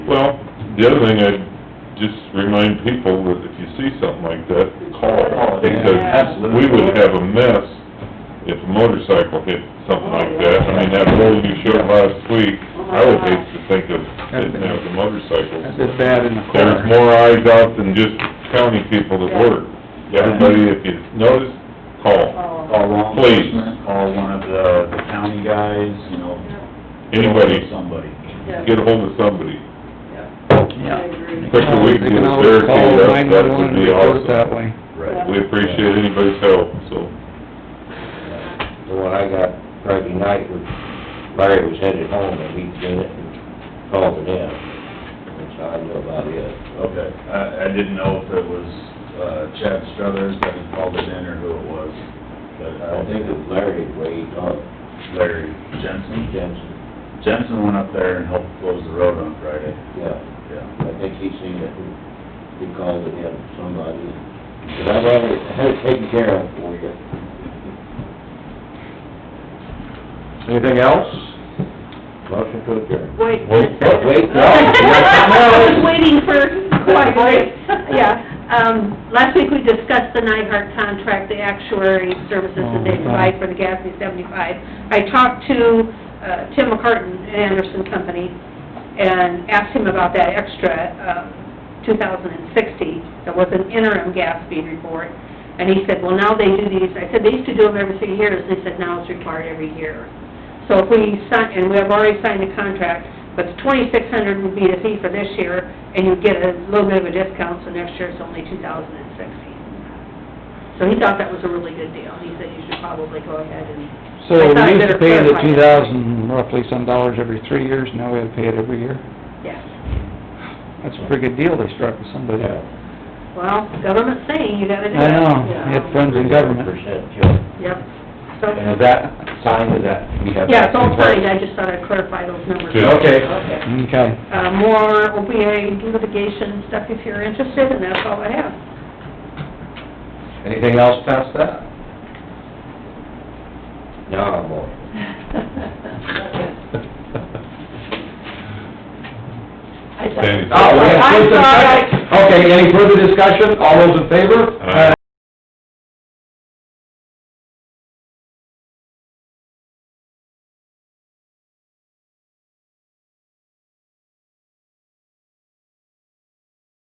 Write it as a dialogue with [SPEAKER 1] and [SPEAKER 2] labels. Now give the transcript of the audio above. [SPEAKER 1] Well, the other thing, I'd just remind people that if you see something like that,
[SPEAKER 2] Call
[SPEAKER 1] call.
[SPEAKER 2] it,
[SPEAKER 1] Because
[SPEAKER 2] yeah, absolutely.
[SPEAKER 1] we would have a mess if a motorcycle hit something like that. I mean, that roll you showed last week, I would hate to think of it as a motorcycle.
[SPEAKER 3] That's as bad in the
[SPEAKER 1] There's
[SPEAKER 3] car.
[SPEAKER 1] more eyes out than just county people that work. Everybody, if you notice, call.
[SPEAKER 2] Call law
[SPEAKER 1] Please.
[SPEAKER 2] enforcement, call one of the the county guys, you know.
[SPEAKER 1] Anybody,
[SPEAKER 2] Somebody.
[SPEAKER 1] get ahold of somebody.
[SPEAKER 3] Yeah.
[SPEAKER 1] They can always-
[SPEAKER 3] They can always call nine-one-one and report it that way.
[SPEAKER 1] We appreciate anybody's help, so.
[SPEAKER 4] The one I got Friday night, was Larry was headed home, and he seen it and called it in. That's how I knew about it.
[SPEAKER 2] Okay, I, I didn't know if it was uh, Chad Struthers that had called it in or who it was, but
[SPEAKER 4] I
[SPEAKER 2] I
[SPEAKER 4] think
[SPEAKER 2] think
[SPEAKER 4] it was Larry, the way he talked,
[SPEAKER 2] Larry Jensen.
[SPEAKER 4] Jensen,
[SPEAKER 2] Jensen went up there and helped close the road on Friday,
[SPEAKER 4] yeah,
[SPEAKER 2] yeah.
[SPEAKER 4] I think he seen it, and he called it in, somebody. But I've had it, had it taken care of for you. Anything else? Motion to adjourn.
[SPEAKER 5] Wait.
[SPEAKER 1] Wait,
[SPEAKER 4] what? Wait, no.
[SPEAKER 5] I was waiting for quite a bit, yeah. Um, last week we discussed the Nyhart contract, the actuary services that they provide for the GASB seventy-five. I talked to, uh, Tim McCartan, Anderson Company, and asked him about that extra, uh, two thousand and sixty, that was an interim GASB report. And he said, well, now they do these, I said, they used to do them every three years, they said, now it's required every year. So if we sign, and we have already signed the contract, but the twenty-six hundred would be the fee for this year, and you get a little bit of a discount, so next year it's only two thousand and sixty. So he thought that was a really good deal, and he said you should probably go ahead and,
[SPEAKER 3] So
[SPEAKER 5] I thought
[SPEAKER 3] we used
[SPEAKER 5] better
[SPEAKER 3] to pay the
[SPEAKER 5] clarify
[SPEAKER 3] two
[SPEAKER 5] that.
[SPEAKER 3] thousand roughly some dollars every three years, now we have to pay it every year.
[SPEAKER 5] yes.
[SPEAKER 3] That's a pretty good deal they struck with somebody.
[SPEAKER 4] Yeah.
[SPEAKER 5] Well, government's saying you gotta do
[SPEAKER 3] I
[SPEAKER 5] it.
[SPEAKER 3] know,
[SPEAKER 5] Yeah.
[SPEAKER 3] you have friends in government.
[SPEAKER 4] Percent, yeah.
[SPEAKER 5] Yep. So,
[SPEAKER 4] And is that signed, is that, we have?
[SPEAKER 5] yeah, it's all fine, I just thought I'd clarify those numbers.
[SPEAKER 1] Yeah.
[SPEAKER 4] Okay.
[SPEAKER 5] Okay.
[SPEAKER 3] Okay.
[SPEAKER 5] Uh, more opioid litigation stuff if you're interested, and that's all I have.
[SPEAKER 4] Anything else past that? No, I'm all.
[SPEAKER 1] Sandy's-
[SPEAKER 4] Oh, we have- Okay, any further discussion? All those in favor?
[SPEAKER 1] Aye.